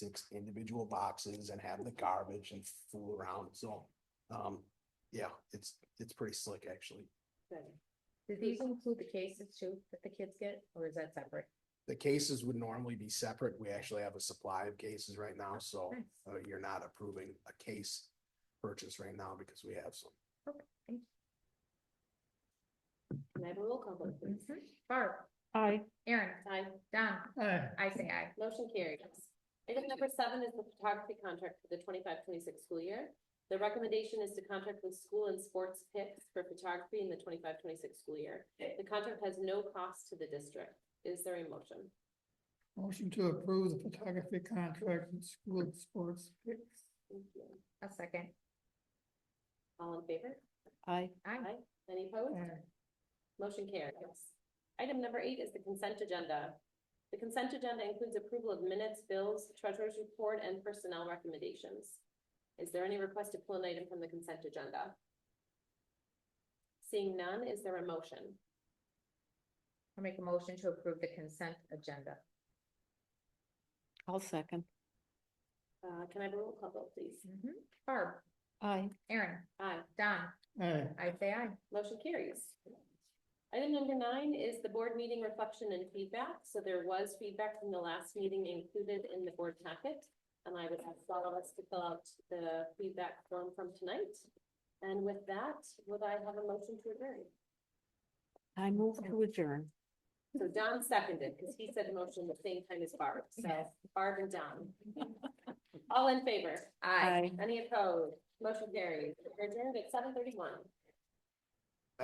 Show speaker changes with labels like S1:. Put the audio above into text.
S1: six individual boxes and have the garbage and fool around, so. Um, yeah, it's, it's pretty slick, actually.
S2: Do these include the cases too that the kids get, or is that separate?
S1: The cases would normally be separate. We actually have a supply of cases right now, so
S2: Nice.
S1: uh, you're not approving a case purchase right now because we have some.
S3: Can I have a roll call vote, please?
S2: Mhm. Barb,
S4: Aye.
S2: Aaron,
S3: Aye.
S2: Don,
S4: Aye.
S2: I say aye.
S3: Motion carried. Item number seven is the photography contract for the 25-26 school year. The recommendation is to contract with school and sports picks for photography in the 25-26 school year. The contract has no cost to the district. Is there a motion?
S4: Motion to approve the photography contract with school sports picks.
S3: Thank you.
S2: A second.
S3: All in favor?
S4: Aye.
S2: Aye.
S3: Any opposed? Motion carries. Item number eight is the consent agenda. The consent agenda includes approval of minutes, bills, treasurer's report, and personnel recommendations. Is there any request to pull an item from the consent agenda? Seeing none, is there a motion?
S2: I'll make a motion to approve the consent agenda.
S5: I'll second.
S3: Uh, can I have a roll call vote, please?
S2: Mhm. Barb,
S5: Aye.
S2: Aaron,
S3: Aye,
S2: Don,
S4: Aye.
S2: I say aye.
S3: motion carries. Item number nine is the board meeting reflection and feedback. So there was feedback from the last meeting included in the board packet. And I would ask all of us to fill out the feedback form from tonight. And with that, would I have a motion to adjourn?
S5: I move to adjourn.
S3: So Don seconded, because he said motion at the same time as Barb, so Barb and Don. All in favor?
S2: Aye.
S3: Any opposed? Motion carries. We're Adjourned at seven thirty-one.